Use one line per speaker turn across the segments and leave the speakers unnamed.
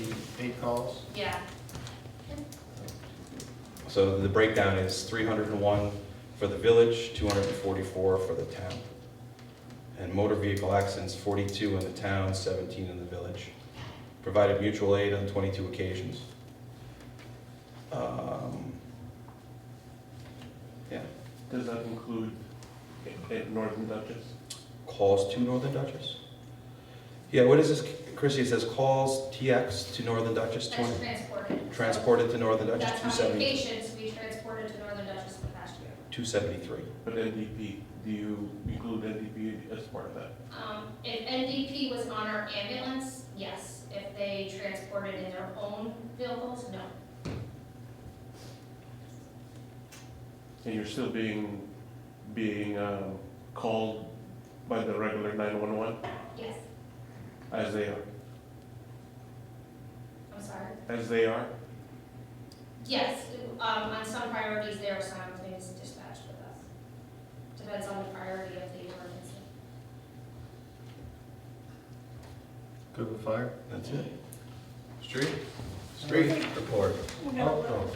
fifty-eight calls.
Yeah,
So the breakdown is three hundred and one for the village, two hundred and forty-four for the town. And motor vehicle accidents, forty-two in the town, seventeen in the village. Provided mutual aid on twenty-two occasions. Um,
Does that include i- i- Northern Duchess?
Calls to Northern Duchess? Yeah, what is this, Chrissy, it says calls TX to Northern Duchess,
that's
twenty,
transported.
transported to Northern Duchess,
That's
two
how many
seventy,
patients we transported to Northern Dutchess for past year.
two seventy-three.
But NDP, do you include NDP as part of that?
Um, if NDP was on our ambulance, yes. If they transported in their own vehicles, no.
And you're still being, being um, called by the regular 911
Yes,
as they are,
I'm sorry.
as they are?
Yes, um, on some priorities, they are simultaneously dispatched with us. Depends on the priority of the emergency.
Good with fire.
That's it.
Street?
Street report.
We got a little,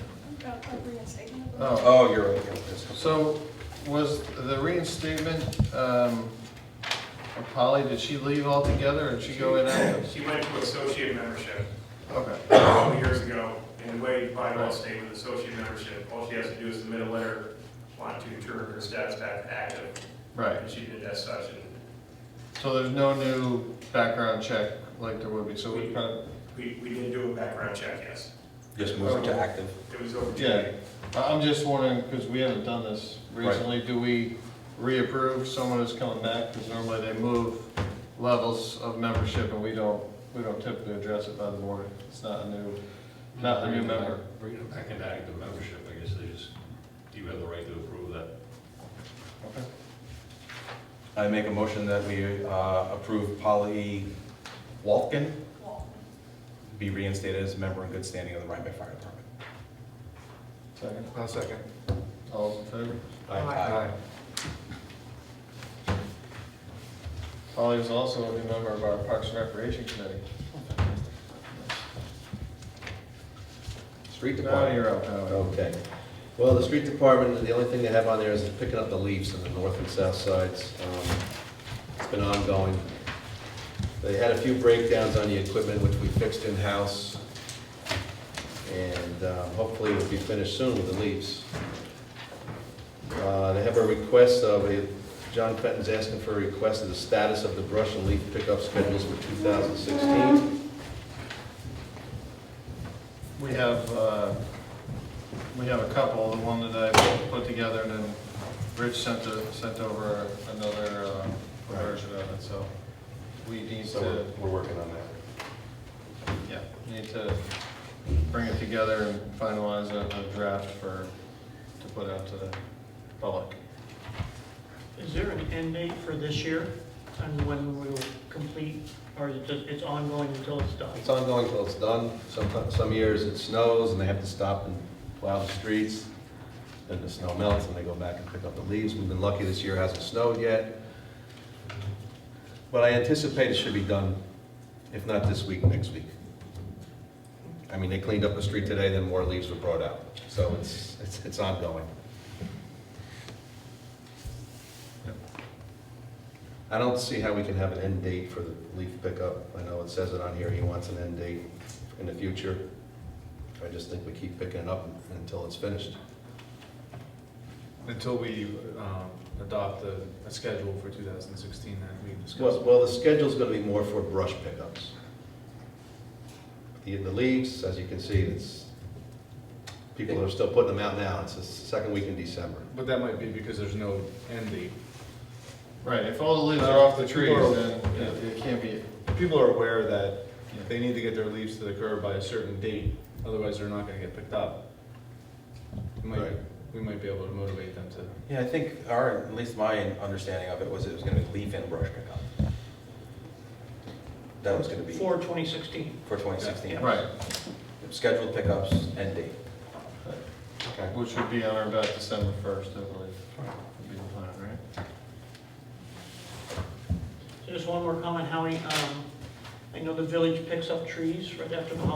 a reinstatement.
Oh,
Oh, you're right, you're right, that's-
so was the reinstatement, um, of Polly, did she leave altogether or did she go in after?
She went to associate membership
Okay,
a couple years ago, and the way by law state with associate membership, all she has to do is submit a letter wanting to return her status back to active,
right.
and she did as such, and
So there's no new background check like there would be, so we kind of,
we, we did do a background check, yes.
Just move it to active.
It was over two
yeah. I- I'm just wondering, because we haven't done this
Right.
recently, do we reapprove someone who's coming back? Because normally they move levels of membership and we don't, we don't typically address it by the board. It's not a new, not a new member.
Bringing it back into active membership, I guess they just, you have the right to approve that.
Okay.
I make a motion that we uh, approve Polly Walken
Well,
be reinstated as a member in good standing of the Rhinebeck Fire Department.
Second.
One second.
All those in favor?
Aye.
Polly was also a new member of our Parks and Recreation Committee.
Street
Now
department.
you're up,
Oh.
Howard.
Okay. Well, the street department, the only thing they have on there is picking up the leaves on the north and south sides. Um, It's been ongoing. They had a few breakdowns on the equipment, which we fixed in-house. And uh, hopefully it'll be finished soon with the leaves. Uh, They have a request of, a John Fenton's asking for a request of the status of the brush and leaf pickup schedules for 2016.
We have, uh, we have a couple, the one that I put together and then Rich sent, a- sent over another uh,
Right.
version of it, so we need
So we're-
to,
uh, we're working on that.
yeah, need to bring it together and finalize a a draft for, to put out to the public.
Is there an end date for this year on when we'll complete, or is it just, it's ongoing until it's done?
It's ongoing till it's done. Sometimes, some years it snows and they have to stop and plow the streets. Then the snow melts and they go back and pick up the leaves. We've been lucky this year it hasn't snowed yet. But I anticipate it should be done, if not this week, next week. I mean, they cleaned up the street today, then more leaves were brought out. So it's, it's, it's ongoing. I don't see how we can have an end date for the leaf pickup. I know it says it on here, he wants an end date in the future. I just think we keep picking it up until it's finished.
Until we um, adopt a, a schedule for 2016 that we discussed.
Well, well, the schedule's gonna be more for brush pickups. The, the leaves, as you can see, it's, people are still putting them out now. It's the second week in December.
But that might be because there's no end date.
Right, Uh, if all the leaves are off the trees, then it it can't be,
People are aware that they need to get their leaves to the curb by a certain date, otherwise they're not gonna get picked up. We might,
Right.
we might be able to motivate them to
Yeah, I think our, at least my understanding of it was it was gonna be leaf and brush pickup. That was gonna be
For 2016.
for twenty sixteen.
right,
Scheduled pickups, end date.
Okay.
which would be on or about December first, I believe, would be the plan, right?
Just one more comment, Howie. Um, I know the village picks up trees right after the holidays.